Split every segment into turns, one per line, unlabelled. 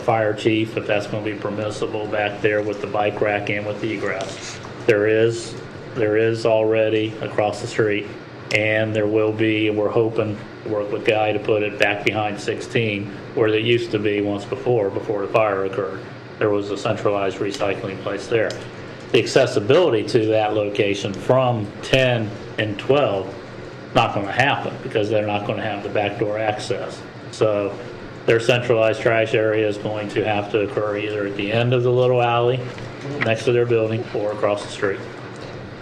fire chief if that's going to be permissible back there with the bike rack and with the egress. There is, there is already across the street, and there will be, and we're hoping, to work with Guy to put it back behind 16, where it used to be once before, before the fire occurred. There was a centralized recycling place there. The accessibility to that location from 10 and 12 not going to happen because they're not going to have the backdoor access. So their centralized trash area is going to have to occur either at the end of the little alley next to their building or across the street.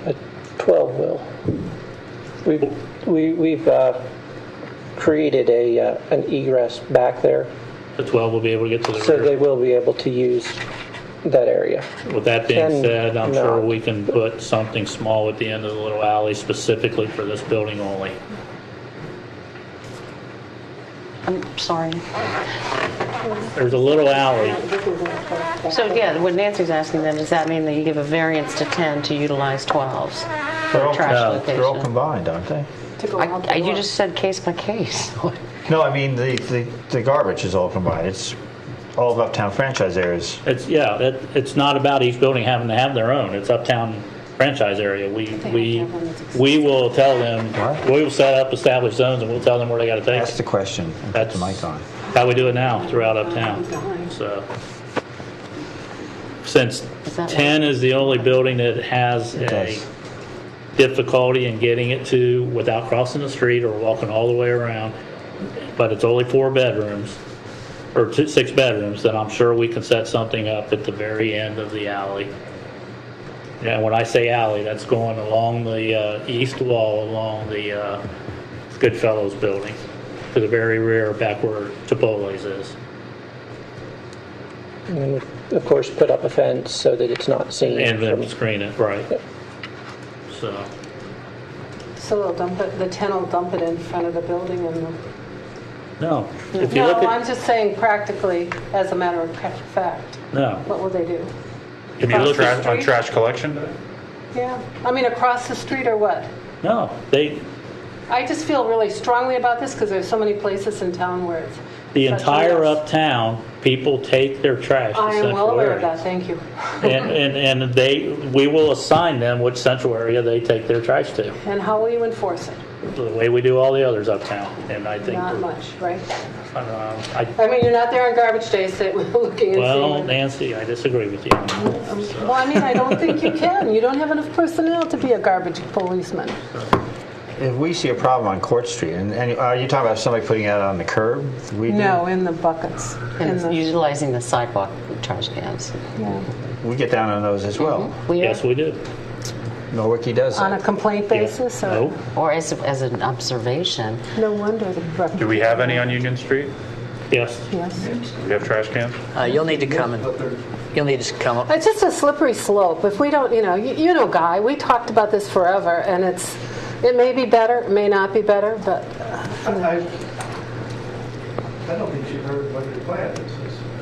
At 12 will. We've, we- we've uh, created a, uh, an egress back there,
The 12 will be able to get to the
so they
rear.
will be able to use that area.
With that being
Ten,
said, I'm
no.
sure we can put something small at the end of the little alley specifically for this building only.
I'm sorry.
There's a little alley.
So yeah, what Nancy's asking then, does that mean that you give a variance to 10 to utilize 12s for a trash
no,
location?
They're all combined, aren't they?
I- I- You just said case by case.
No, I mean, the, the, the garbage is all combined. It's all of uptown franchise areas.
It's, yeah, it, it's not about each building having to have their own. It's uptown franchise area. We, we, we will tell them,
What?
we will set up established zones and we'll tell them where they gotta take
That's
it.
the question. and Put
That's
the mic on.
How we do it now throughout uptown, so. Since
Is that
ten is the only building that has a
does.
difficulty in getting it to without crossing the street or walking all the way around, but it's only four bedrooms, or two, six bedrooms, then I'm sure we can set something up at the very end of the alley. And when I say alley, that's going along the uh, east wall, along the uh, Goodfellows building, to the very rear, back where Chipotle's is.
And then, of course, put up a fence so that it's not seen.
And
from-
then screen it, right. So,
So they'll dump it, the ten will dump it in front of the building and the...
no, if you
No,
look
I'm
at,
just saying practically, as a matter of ca- fact,
no.
what will they do?
If you
Across
look
the
at,
street?
On trash collection day?
Yeah, I mean, across the street or what?
no, they,
I just feel really strongly about this because there's so many places in town where it's...
the
such a
entire
mess.
uptown, people take their trash to
I am well
central
aware of
area.
that, thank you.
And, and, and they, we will assign them which central area they take their trash to,
And how will you enforce it?
the way we do all the others uptown. And I think,
Not
we're-
much, right?
I don't know, I,
I mean, you're not there on garbage days that we're looking and
Well,
seeing. Um,
Nancy, I disagree with you.
Well, I mean, I don't think you can. You don't have enough personnel to be a garbage policeman.
If we see a problem on Court Street, and, and are you talking about somebody putting it out on the curb? We do-
No, in the buckets. In
And
the,
utilizing the sidewalk trash cans.
yeah.
We get down on those as well.
We are-
Yes, we do.
Milwaukee does
Mm-hmm. On a
that.
complaint basis, or?
No,
Or as, as an observation.
No wonder the
Do we have any on Union Street?
yes.
Yes.
Do we have trash cans?
Uh, You'll need to come and, you'll need to come up.
It's just a slippery slope. If we don't, you know, you, you know, Guy, we talked about this forever, and it's, it may be better, it may not be better, but
I, I don't think she heard what your plan is.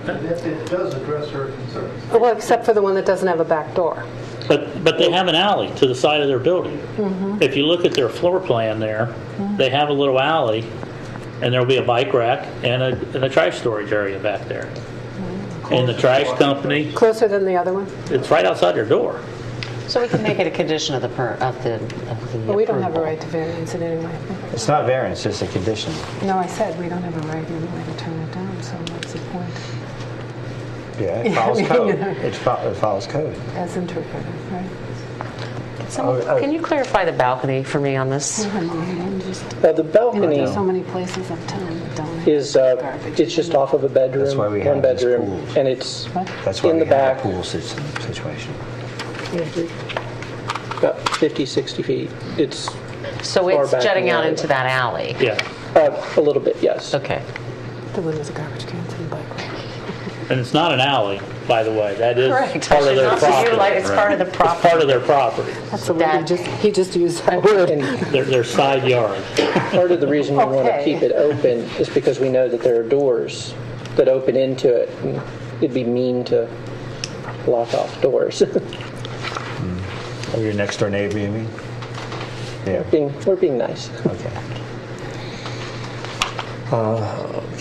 It- It does address her concerns.
well, except for the one that doesn't have a back door.
But, but they have an alley to the side of their building. If you look at their floor plan there, they have a little alley, and there'll be a bike rack and a, and a trash storage area back there. And the trash company,
Closer than the other one.
it's right outside their door.
So we can make it a condition of the, per- of the, of the.
But we don't have a
approval.
right to variance in any way.
It's not variance, it's a condition.
No, I said we don't have a right in any way to turn it down. So what's the point?
Yeah, it follows code.
know.
It fo- it follows code.
As interpreted, right?
Someone-
Oh, oh.
Can you clarify the balcony for me on this?
Uh, The balcony
so many places uptown that don't. have
is, uh,
garbage.
it's just off of a bedroom.
That's why we have
one
these
bedroom,
pools.
And it's
That's why
in
we
the
have a
back,
pool system situation.
about 50, 60 feet. It's
So
Far
it's
back in
jutting
the
out
alley.
into that alley?
Yeah,
uh, a little bit, yes.
Okay.
The one with the garbage cans and the bike.
and it's not an alley, by the way. That is
Correct.
part of their
It's not
property.
utilized, it's part of the
It's part of their property,
That's the
That-
word, he just, he just used that word.
And
their, their side yard.
part of the reason we want to
Okay.
keep it open is because we know that there are doors that open into it. and It'd be mean to lock off doors.
Or your next door neighbor, you mean? Yeah.
Being- We're being nice.
Okay.